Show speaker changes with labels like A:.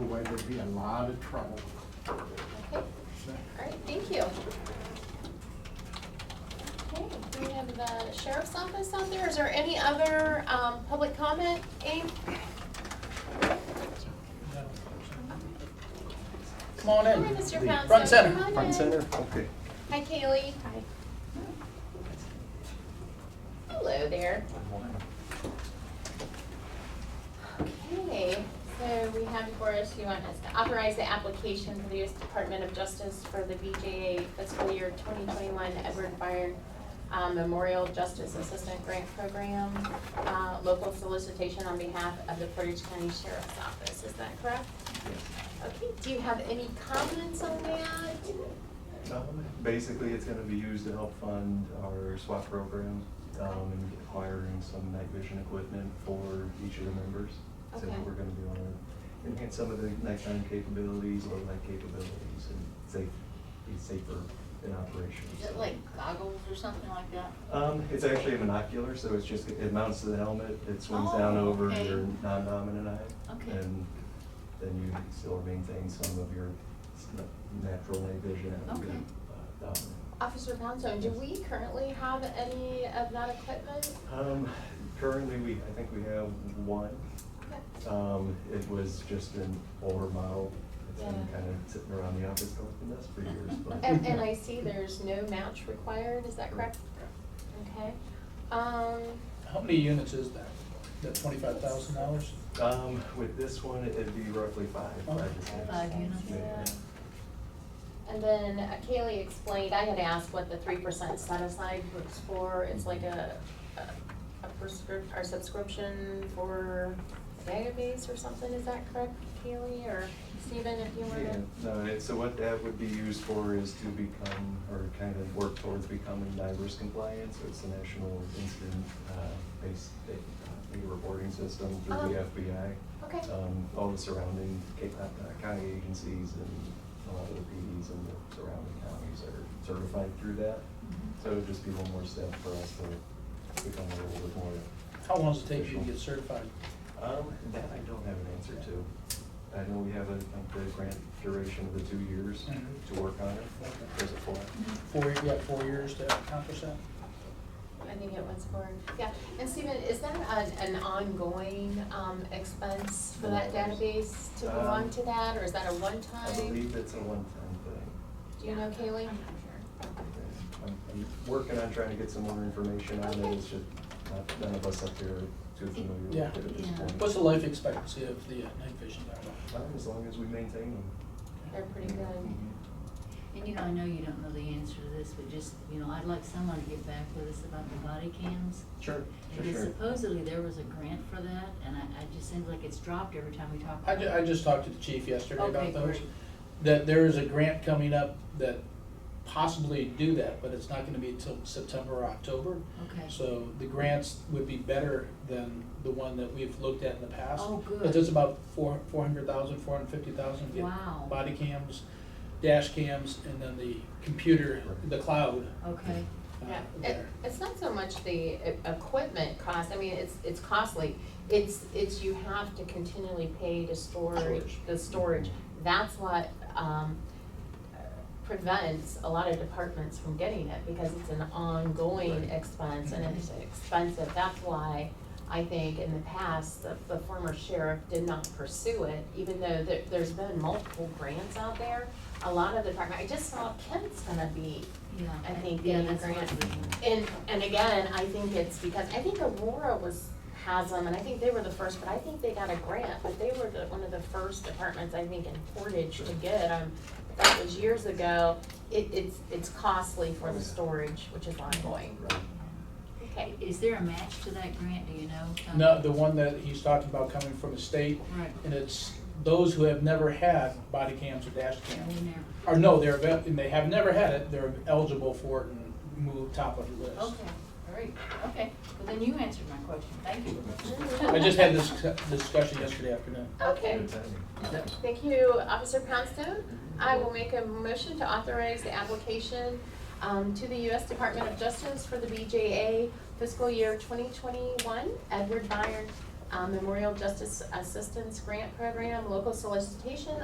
A: would be a lot of trouble.
B: Okay, all right, thank you. Okay, do we have the sheriff's office out there? Is there any other um, public comment, Abe?
C: Come on
B: Hi,
C: in.
B: Mr. Pounce.
C: Front center.
B: Come on in.
D: Front center, okay.
B: Hi, Kaylee. Hi. Hello there. Okay, so we have before us, you want us to authorize the application for the U.S. Department of Justice for the BJA fiscal year 2021 Edward Byrne um, Memorial Justice Assistant Grant Program, uh, local solicitation on behalf of the Portage County Sheriff's Office. Is that correct? Okay, do you have any comments on that?
D: Um, Basically, it's gonna be used to help fund our SWAT program, um, and acquiring some night vision equipment for each of the members. So
B: Okay.
D: we're gonna be able to enhance some of the nighttime capabilities, low light capabilities, and safe, be safer in operations.
E: Is it like goggles or something like that?
D: Um, it's actually a monocular, so it's just, it mounts to the helmet, it swings
E: Oh,
D: down over
E: okay.
D: your non-dominant eye.
E: Okay.
D: And then you still maintain some of your s- natural night vision. and your,
E: Okay.
D: uh, dominant.
B: Officer Poundstone, do we currently have any of that equipment?
D: Um, currently, we, I think we have one. Um, it was just an older model. It's been
B: Yeah.
D: kind of sitting around the office collecting dust for years, but.
B: And, and I see there's no match required, is that correct? Okay. Um,
C: How many units is that? That twenty-five thousand dollars?
D: Um, with this one, it'd be roughly five, five to six.
E: Five units.
D: Yeah.
B: and then uh, Kaylee explained, I had asked what the three percent set aside was for, it's like a, a- a prescrip, or subscription for a database or something, is that correct, Kaylee, or Stephen, if you were
D: Yeah,
B: to?
D: no, it, so what that would be used for is to become, or kind of work towards becoming NIBRS compliant, so it's the National Incident, uh, Based Data uh, Data Reporting System
B: Oh.
D: through the FBI.
B: Okay.
D: Um, all the surrounding Cape Cod County agencies and a lot of the PDs and the surrounding counties are certified through that. So it would just be one more step for us to become a little bit more
C: How long does it take you to get certified?
D: um, that I don't have an answer to. I know we have a, like, the grant duration of the two years
C: Mhm.
D: to work on it.
C: Okay.
D: There's a four.
C: Four, you got four years to accomplish that?
B: I think it was for, yeah, and Stephen, is that an, an ongoing, um, expense for that database to move on to that, or is that a one-time?
D: Um, I believe it's a one-time thing.
B: Do you know Kaylee?
E: I'm not
D: I'm, I'm working on trying to get some more information on
B: Okay.
D: it, it's just, not- none of us up here are too familiar
C: Yeah.
D: with it at this
E: Yeah.
D: point.
C: What's the life expectancy of the uh, night vision
D: Well,
C: dial?
D: As long as we maintain them.
B: They're pretty good.
D: Mhm.
E: sure. And you know, I know you don't know the answer to this, but just, you know, I'd like someone to get back with us about the body cams.
D: Sure, sure,
E: Because
D: sure.
E: supposedly there was a grant for that, and I, I just seems like it's dropped every time we talk.
C: I
E: about
C: ju-
E: it.
C: I just talked to the chief yesterday about
E: Okay,
C: those.
E: great.
C: That there is a grant coming up that possibly do that, but it's not gonna be until September or October.
E: Okay.
C: So the grants would be better than the one that we've looked at in the past.
E: Oh, good.
C: But it's about four, four hundred thousand, four hundred fifty thousand.
E: Wow.
C: Body cams, dash cams, and then the computer, the cloud.
E: Okay,
C: uh,
B: Yeah, it,
C: there.
B: it's not so much the e- equipment cost, I mean, it's, it's costly. It's, it's you have to continually pay to store
D: Storage.
B: the storage. That's what, um, prevents a lot of departments from getting it because it's an ongoing
D: Right.
B: expense and it's expensive. That's why I think in the past, the, the former sheriff did not pursue it, even though there, there's been multiple grants out there. A lot of the department, I just saw Kent's gonna be
E: yeah.
B: I think
E: Yeah,
B: getting a
E: that's what
B: grant.
E: we-
B: and, and again, I think it's because, I think Aurora was, has them, and I think they were the first, but I think they got a grant, but they were the, one of the first departments, I think, in Portage to get them. That was years ago, it, it's, it's costly for the storage, which is ongoing.
D: Right.
B: Okay,
E: Is there a match to that grant, do you know? Tom?
C: No, the one that he's talking about coming from the state,
E: Right,
C: and it's those who have never had body cams or dash
E: and
C: cams.
E: we never,
C: Or no, they're, avail- and they have never had it, they're eligible for it and move top of the list.
E: okay, all right, okay, well then you answered my question, thank you.
C: I just had this discussion yesterday afternoon.
B: okay.
D: Good timing.
B: Thank you, Officer Poundstone. I will make a motion to authorize the application um, to the U.S. Department of Justice for the BJA fiscal year 2021 uh, Edward Byrne um, Memorial Justice Assistance Grant Program, local solicitation